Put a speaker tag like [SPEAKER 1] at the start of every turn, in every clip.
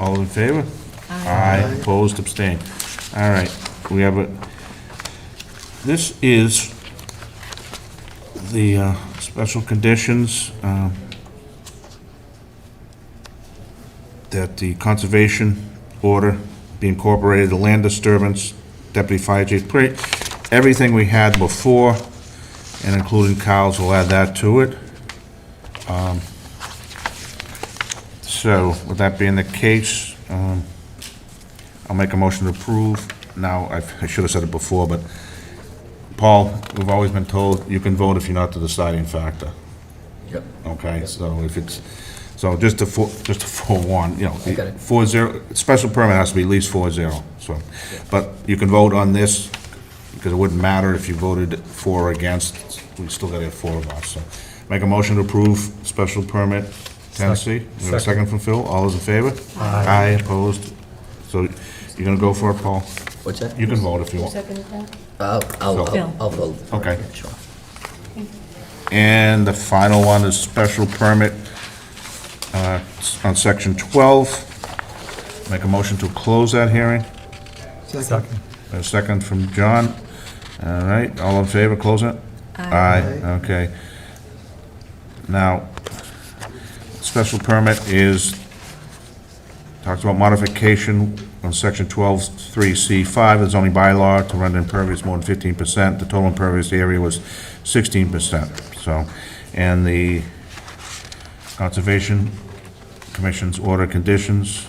[SPEAKER 1] All in favor? Aye. Opposed, abstained. All right, we have a, this is the uh, special conditions um, that the conservation order be incorporated, the land disturbance, deputy fire chief, pretty, everything we had before, and including Kyle's, we'll add that to it. Um, So, with that being the case, um, I'll make a motion to approve. Now, I've- I should have said it before, but Paul, we've always been told you can vote if you're not the deciding factor.
[SPEAKER 2] Yep.
[SPEAKER 1] Okay, so if it's, so just to, fore- just to forewarn, you know,
[SPEAKER 2] I got it.
[SPEAKER 1] four zero, special permit has to be at least four zero, so. But you can vote on this, because it wouldn't matter if you voted for or against, we still gotta have four of us, so. Make a motion to approve special permit Tennessee. We have a second from Phil, all those in favor? Aye. opposed? So you're gonna go for it, Paul?
[SPEAKER 2] What's that?
[SPEAKER 1] You can vote if you want.
[SPEAKER 3] Second that?
[SPEAKER 2] I'll, I'll,
[SPEAKER 3] Phil.
[SPEAKER 2] I'll- I'll vote.
[SPEAKER 1] Okay.
[SPEAKER 2] Sure.
[SPEAKER 1] And the final one is special permit uh, on section 12. Make a motion to close that hearing.
[SPEAKER 4] Second.
[SPEAKER 1] A second from John. All right, all in favor, close it? Aye, okay. Now, special permit is, talks about modification on section 12.3C5 of the zoning bylaw to render impervious more than 15%. The total impervious area was 16%, so, and the Conservation Commission's order conditions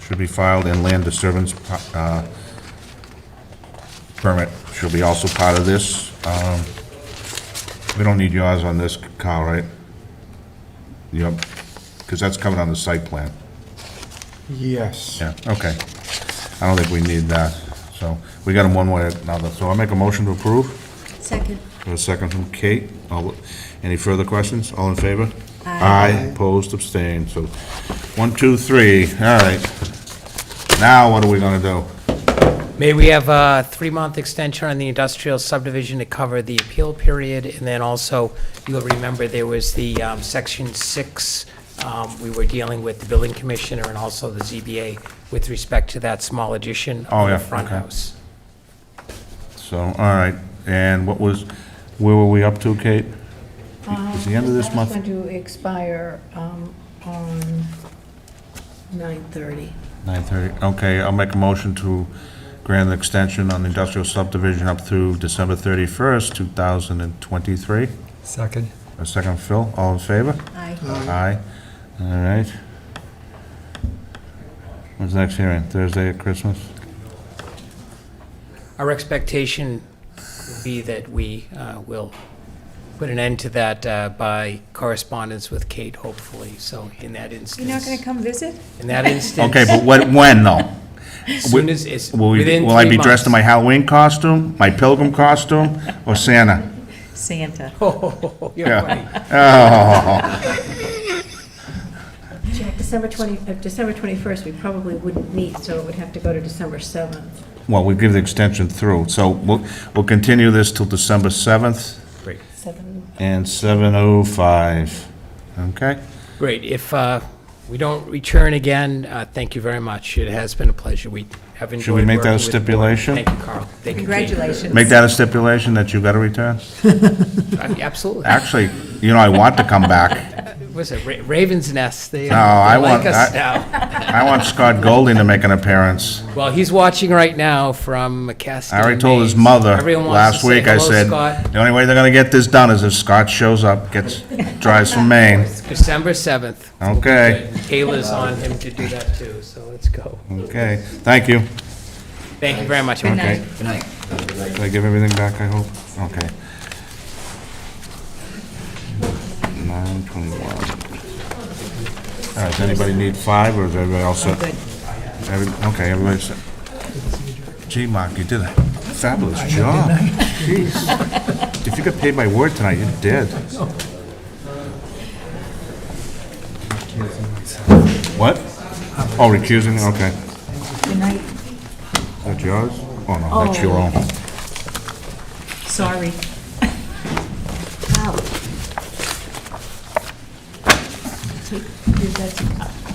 [SPEAKER 1] should be filed, and land disturbance uh, permit should be also part of this. Um, We don't need yours on this, Kyle, right? Yep, because that's covered on the site plan.
[SPEAKER 4] Yes.
[SPEAKER 1] Yeah, okay. I don't think we need that, so we got them one way or another. So I make a motion to approve.
[SPEAKER 3] Second.
[SPEAKER 1] Got A second from Kate. All- Any further questions? All in favor?
[SPEAKER 3] Aye.
[SPEAKER 1] opposed, abstained, so one, two, three, all right. Now what are we gonna do?
[SPEAKER 5] May we have a three-month extension on the industrial subdivision to cover the appeal period, and then also, you'll remember there was the um, Section 6, um, we were dealing with the building commissioner and also the ZBA with respect to that small addition
[SPEAKER 1] Oh,
[SPEAKER 5] on
[SPEAKER 1] yeah,
[SPEAKER 5] the front
[SPEAKER 1] okay.
[SPEAKER 5] house.
[SPEAKER 1] So, all right, and what was, where were we up to, Kate? Is the end of this
[SPEAKER 3] That's
[SPEAKER 1] month?
[SPEAKER 3] going to expire um, on 9:30.
[SPEAKER 1] 9:30, okay, I'll make a motion to grant an extension on the industrial subdivision up through December 31st, 2023.
[SPEAKER 4] Second.
[SPEAKER 1] A second, Phil, all in favor?
[SPEAKER 3] Aye.
[SPEAKER 1] Aye. All right. When's the next hearing? Thursday at Christmas?
[SPEAKER 5] Our expectation would be that we uh, will put an end to that uh, by correspondence with Kate, hopefully, so in that instance.
[SPEAKER 3] You're not going to come visit?
[SPEAKER 5] In that instance.
[SPEAKER 1] Okay, but when, when, though?
[SPEAKER 5] As soon as, it's
[SPEAKER 1] Will we,
[SPEAKER 5] within
[SPEAKER 1] will I
[SPEAKER 5] three
[SPEAKER 1] be dressed in my
[SPEAKER 5] months.
[SPEAKER 1] Halloween costume, my pilgrim costume, or Santa? Oh,
[SPEAKER 3] Santa.
[SPEAKER 5] Oh, You're
[SPEAKER 1] Yeah.
[SPEAKER 5] right.
[SPEAKER 6] Jack, December 20, uh, December 21st, we probably wouldn't meet, so it would have to go to December 7th.
[SPEAKER 1] Well, we give the extension through, so we'll, we'll continue this till December 7th
[SPEAKER 3] Seven.
[SPEAKER 1] and 7:05, okay?
[SPEAKER 5] Great. If uh, we don't return again, uh, thank you very much. It has been a pleasure. We have enjoyed
[SPEAKER 1] Should we make that a
[SPEAKER 5] working with the board.
[SPEAKER 1] stipulation?
[SPEAKER 5] Thank you, Carl. Thank you, Kate.
[SPEAKER 3] Congratulations.
[SPEAKER 1] Make that a stipulation that you got to return?
[SPEAKER 5] Uh, Absolutely.
[SPEAKER 1] Actually, you know, I want to come back.
[SPEAKER 5] Was it Ra- Raven's Nest? They uh,
[SPEAKER 1] I
[SPEAKER 5] they like
[SPEAKER 1] want-
[SPEAKER 5] us
[SPEAKER 1] I-
[SPEAKER 5] now.
[SPEAKER 1] I want Scott Golding to make an appearance.
[SPEAKER 5] Well, he's watching right now from Castile,
[SPEAKER 1] I already told his
[SPEAKER 5] Maine.
[SPEAKER 1] mother
[SPEAKER 5] Everyone wants
[SPEAKER 1] last
[SPEAKER 5] to say
[SPEAKER 1] week, I
[SPEAKER 5] hello,
[SPEAKER 1] said,
[SPEAKER 5] Scott.
[SPEAKER 1] the only way they're going to get this done is if Scott shows up, gets, drives from Maine.
[SPEAKER 5] December 7th.
[SPEAKER 1] Okay.
[SPEAKER 5] Kayla's on him to do that too, so let's go.
[SPEAKER 1] Okay, thank you.
[SPEAKER 5] Thank you very much.
[SPEAKER 3] Good
[SPEAKER 5] everyone.
[SPEAKER 3] night.
[SPEAKER 1] Okay,
[SPEAKER 2] Good night.
[SPEAKER 1] did I give everything back, I hope? Okay. 9:21. All right, does anybody need five, or is everybody all set?
[SPEAKER 3] Good.
[SPEAKER 1] Every- Okay, everybody's set. Gee, Mark, you did a fabulous job. Jeez. If you got paid by word tonight, you did. What? Oh, recusing, okay.
[SPEAKER 3] Good night.
[SPEAKER 1] Is that yours? Oh, no, that's your own.
[SPEAKER 3] Sorry.
[SPEAKER 6] Wow. Take- Is that-